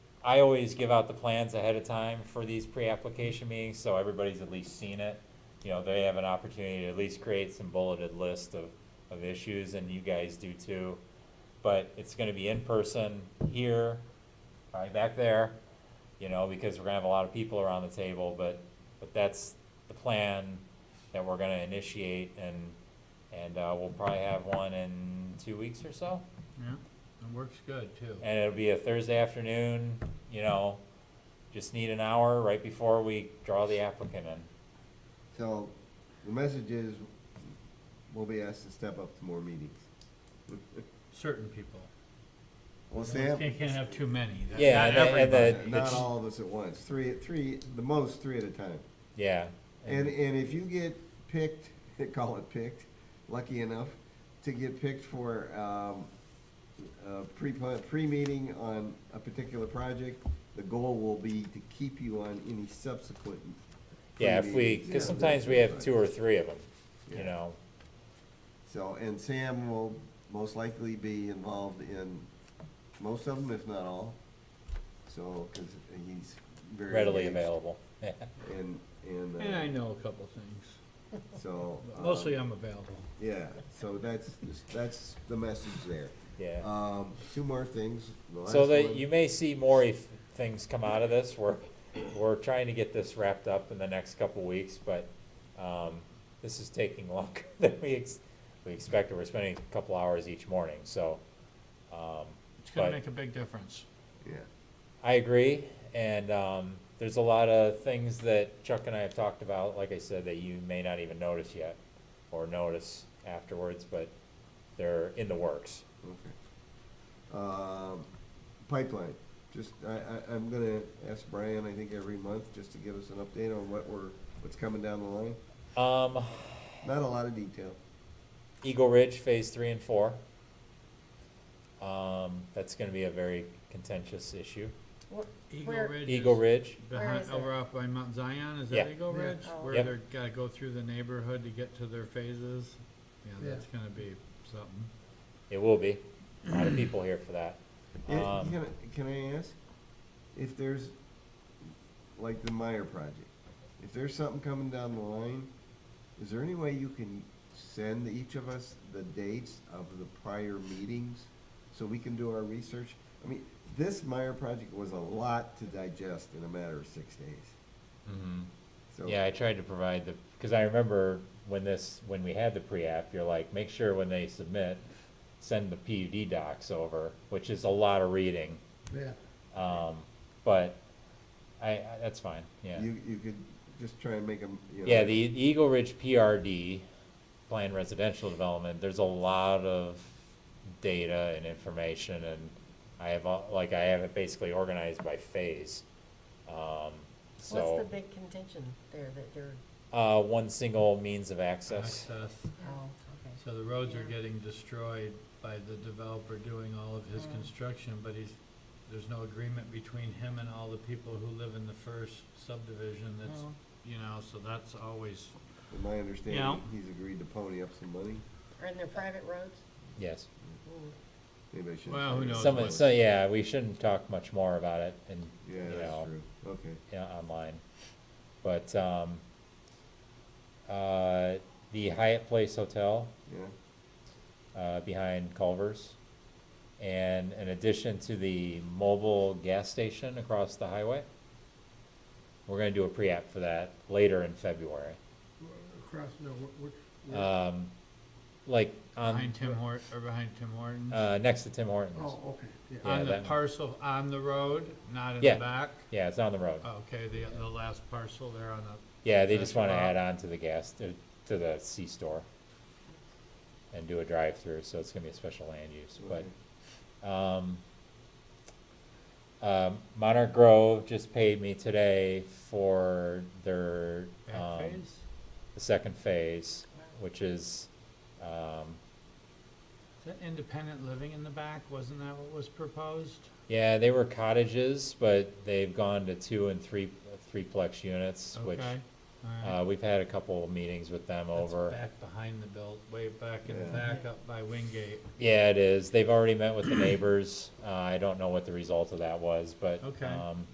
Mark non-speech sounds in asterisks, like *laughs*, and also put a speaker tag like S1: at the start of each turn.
S1: I always give out the plans ahead of time for these pre-application meetings, so everybody's at least seen it. You know, they have an opportunity to at least create some bulleted list of, of issues, and you guys do too. But it's gonna be in person here, probably back there, you know, because we're gonna have a lot of people around the table, but, but that's the plan that we're gonna initiate, and, and, uh, we'll probably have one in two weeks or so.
S2: Yeah, it works good too.
S1: And it'll be a Thursday afternoon, you know, just need an hour right before we draw the applicant in.
S3: So, the message is, we'll be asked to step up to more meetings.
S2: Certain people.
S3: Well,
S2: You
S3: Sam,
S2: Can't, can't have too many. That's
S1: Yeah, and
S2: not
S1: the- and the-
S2: everybody.
S3: not all of us at once, three, three, the most three at a time.
S1: Yeah.
S3: And, and if you get picked, *laughs* they call it picked, lucky enough to get picked for, um, a pre, pre-meeting on a particular project, the goal will be to keep you on any subsequent.
S1: Yeah, if we,
S3: pre-meetings.
S1: cause sometimes we have two or three of them, you
S3: Yeah.
S1: know,
S3: So, and Sam will most likely be involved in most of them, if not all. So, cause he's very.
S1: readily
S3: engaged
S1: available. Yeah.
S3: And,
S2: And I
S3: and,
S2: know a couple things.
S3: uh, so. um,
S2: Mostly I'm available.
S3: Yeah, so that's, that's the message there.
S1: Yeah.
S3: Um, two more things. The
S1: So
S3: last
S1: that
S3: one-
S1: you may see more if things come out of this, we're, we're trying to get this wrapped up in the next couple weeks, but, um, this is taking *laughs* longer than we ex- we expected. We're spending a couple hours each morning, so, um,
S2: It's gonna
S1: But-
S2: make a big difference.
S3: Yeah,
S1: I agree, and um, there's a lot of things that Chuck and I have talked about, like I said, that you may not even notice yet, or notice afterwards, but they're in the works.
S3: okay. Um, pipeline, just, I, I, I'm gonna ask Brian, I think every month, just to give us an update on what we're, what's coming down the line.
S1: Um,
S3: Not a lot of detail.
S1: Eagle Ridge Phase Three and Four. Um, that's going to be a very contentious issue.
S2: Eagle
S4: Where-
S2: Ridge.
S1: Eagle
S2: is
S1: Ridge.
S4: Where
S2: Behind,
S4: is it?
S2: over off by Mount Zion, is
S1: Yeah.
S2: that Eagle
S3: Yeah.
S2: Ridge?
S4: Oh.
S2: Where
S1: Yep.
S2: they're gotta go through the neighborhood to get to their phases? Yeah,
S3: Yeah.
S2: that's gonna be something.
S1: It will be a lot of people here for that.
S3: Eh,
S1: Um,
S3: Can, I- can I ask if there's, like the Meyer project, if there's something coming down the line, is there any way you can send each of us the dates of the prior meetings so we can do our research? I mean, this Meyer project was a lot to digest in a matter of six days,
S1: Mhm.
S3: so.
S1: Yeah, I tried to provide the, because I remember when this, when we had the pre-app, you're like, make sure when they submit, send the PUD docs over, which is a lot of reading.
S3: Yeah.
S1: Um, but I, I, that's fine, yeah.
S3: You, you could just try and make them, you know.
S1: Yeah, the the Eagle Ridge PRD, planned residential development, there's a lot of data and information and I have, all- like, I have it basically organized by phase. Um,
S4: What's the
S1: so,
S4: big contention there that they're,
S1: uh, one single means of access.
S2: Access.
S4: oh, okay.
S2: So the roads are
S4: Yeah.
S2: getting destroyed by the developer doing all of his
S4: Mm.
S2: construction, but he's, there's no agreement between him and all the people who live in the first subdivision that's,
S4: No.
S2: you know, so that's always,
S3: In my
S2: Yeah.
S3: understanding, he's agreed to pony up some money.
S4: Or in their private roads?
S1: Yes.
S4: Mm.
S3: Maybe I shouldn't
S2: Well,
S3: say
S2: who
S3: that.
S2: knows
S1: Some,
S2: what-
S1: so, yeah, we shouldn't talk much more about it and,
S3: Yeah,
S1: you know,
S3: that's true, okay.
S1: yeah, online. But, um, uh, the Hyatt Place Hotel,
S3: Yeah,
S1: uh, behind Culver's. And in addition to the mobile gas station across the highway, we're gonna do a pre-app for that later in February.
S5: Across, no, wh- which, where-
S1: Um, like, on,
S2: behind Tim Hort, or behind Tim Hortons.
S1: Um, uh, next to Tim Hortons.
S5: oh, okay, yeah.
S1: yeah,
S2: On the
S1: that-
S2: parcel, on the road, not in
S1: Yeah.
S2: the back?
S1: Yeah, it's on the road.
S2: Okay, the, the last parcel there on the,
S1: Yeah, they just
S2: That's
S1: wanna
S2: wild.
S1: add on to the gas, to to the C-store and do a drive-through, so it's gonna be a special land use, but, um, um, Monarch Grove just paid me today for their,
S2: back
S1: um,
S2: phase?
S1: the second phase, which is, um,
S2: Is that independent living in the back? Wasn't that what was proposed?
S1: yeah, they were cottages, but they've gone to two and three, threeplex units, which
S2: Okay.
S1: Uh, we've had a couple of meetings with them over.
S2: Back behind the belt, way back
S3: Yeah.
S2: and back up by Wingate.
S1: Yeah, it is. They've already met with the neighbors. Uh, I don't know what the result of that was, but,
S2: Okay.
S1: um,